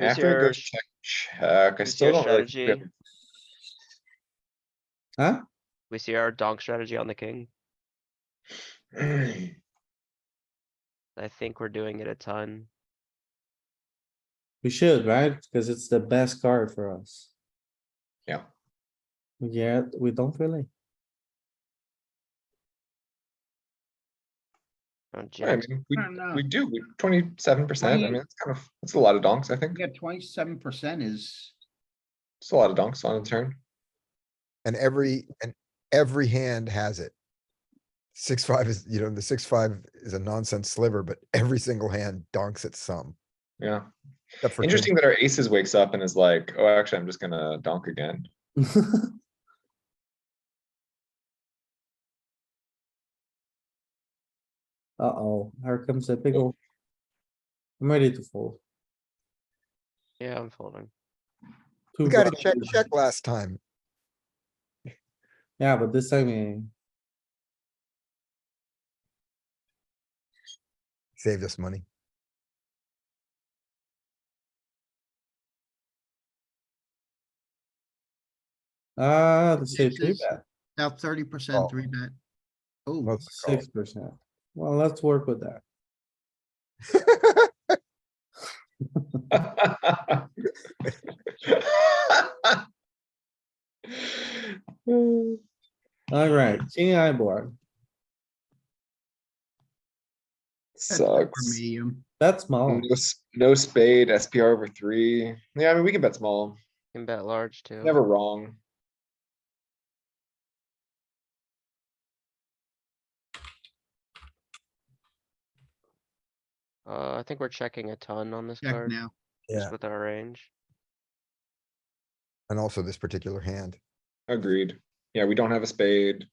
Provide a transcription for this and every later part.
I Who's have to go your, check, check. I who's still your don't really. feel- strategy? Huh? We see our donk strategy on the king. I think we're doing it a ton. We should, right? Because it's the best card for us. Yeah. Yeah, we don't really. I Oh, jacks. mean, we, don't know. we do, twenty-seven percent. I Twenty- mean, it's kind of, it's a lot of donks, I think. Yeah, twenty-seven percent is, It's a lot of donks on a turn. And every, and every hand has it. Six, five is, you know, the six, five is a nonsense sliver, but every single hand donks at some. Yeah. except for king. Interesting that our aces wakes up and is like, oh, actually, I'm just gonna donk again. Uh-oh, here comes a big ol'. I'm ready to fold. Yeah, I'm folding. Two We got a broad- check, check last time. Yeah, but this time, eh, Saved us money. ah, the safe three Sixes. bet, now thirty Oh. percent three bet. Oh, Let's go. six percent. Well, let's work with that. Alright, king eye board. that's good for Sucks. medium. That's small. No s- No spade, SPR over three. Yeah, I mean, we can bet small, Can bet large too. never wrong. Uh, I think we're checking a ton on this Check card, now. Yeah. just with our range. And also this particular hand. Agreed. Yeah, we don't have a spade.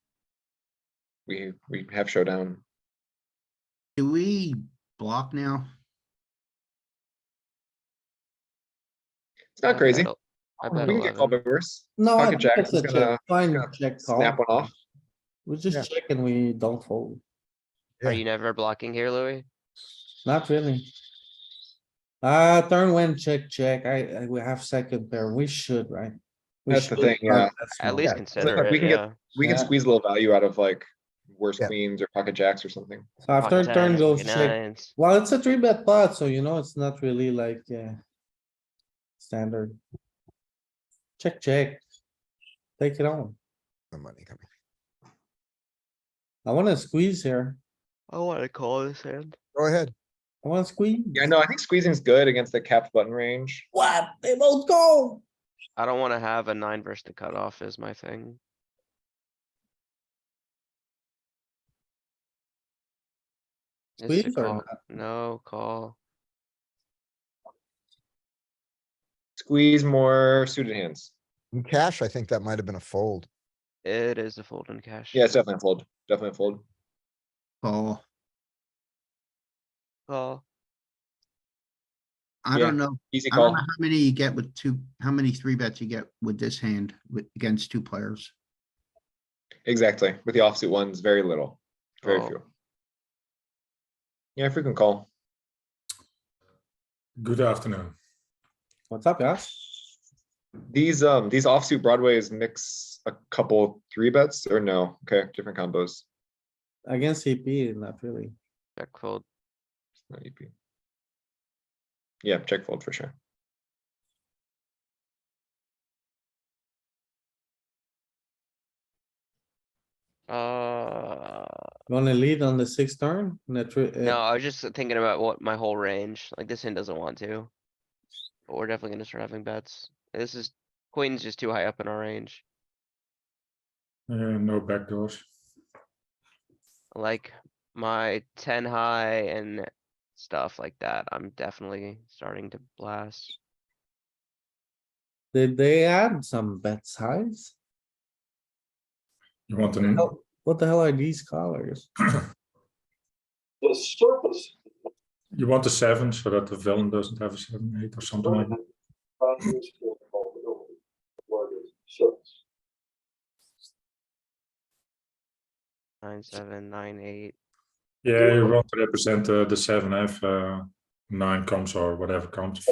We, we have showdown. Do we block now? It's not I bet crazy. el- I Oh, We bet can get called by eleven. worse. No, I Pocket think jacks it's is a gonna- check, fine gonna check call. Snap one off. We Yeah. just check and we don't fold. Are Yeah. you never blocking here, Louis? Not really. Uh, turn one, check, check. I, I, we have second pair. We should, right? We That's the should thing, start yeah. that small. At least like consider we it, can get- yeah. We can Yeah. squeeze a little value out of like worse Yeah. queens or pocket jacks or something. So after Pocket turn tens, goes pocket check. nines. Well, it's a three bet pot, so you know, it's not really like, uh. Standard. Check, check. Take it on. No money coming. I wanna squeeze here. I wanna call this hand. Go ahead. I wanna squeeze. Yeah, no, I think squeezing's good against the capped button range. What? They both go. I don't wanna have a nine versus the cutoff is my thing. It's a Squeeze or call. not? No call. Squeeze more suited hands. In cash, I think that might have been a fold. It is a fold in cash. Yeah, it's definitely a fold, definitely a fold. Oh, Call. I Yeah. don't know. Easy I don't call. know how many you get with two, how many three bets you get with this hand with, against two players. Exactly. With the offsuit ones, very little, very Oh. few. Yeah, frequent call. Good afternoon. What's up, guys? These, um, these offsuit broadways mix a couple three bets or no? Okay, different combos. Against CP, not really. Check fold. Not EP. Yeah, check fold for sure. Uh, You Wanna lead on the sixth turn? and the three- uh, no, I was just thinking about what my whole range, like this hand doesn't want to. But we're definitely gonna start having bets. This is, queen's just too high up in our range. Uh, no backdoors. Like my ten high and stuff like that, I'm definitely starting to blast. Did they add some bet size? You want to know? Oh, What the hell are these colors? The surface. You want a seven so that the villain doesn't have a seven, eight, or something like that. Nine, seven, nine, eight. Yeah, you want to represent uh, the seven, have uh, nine comes or whatever comes.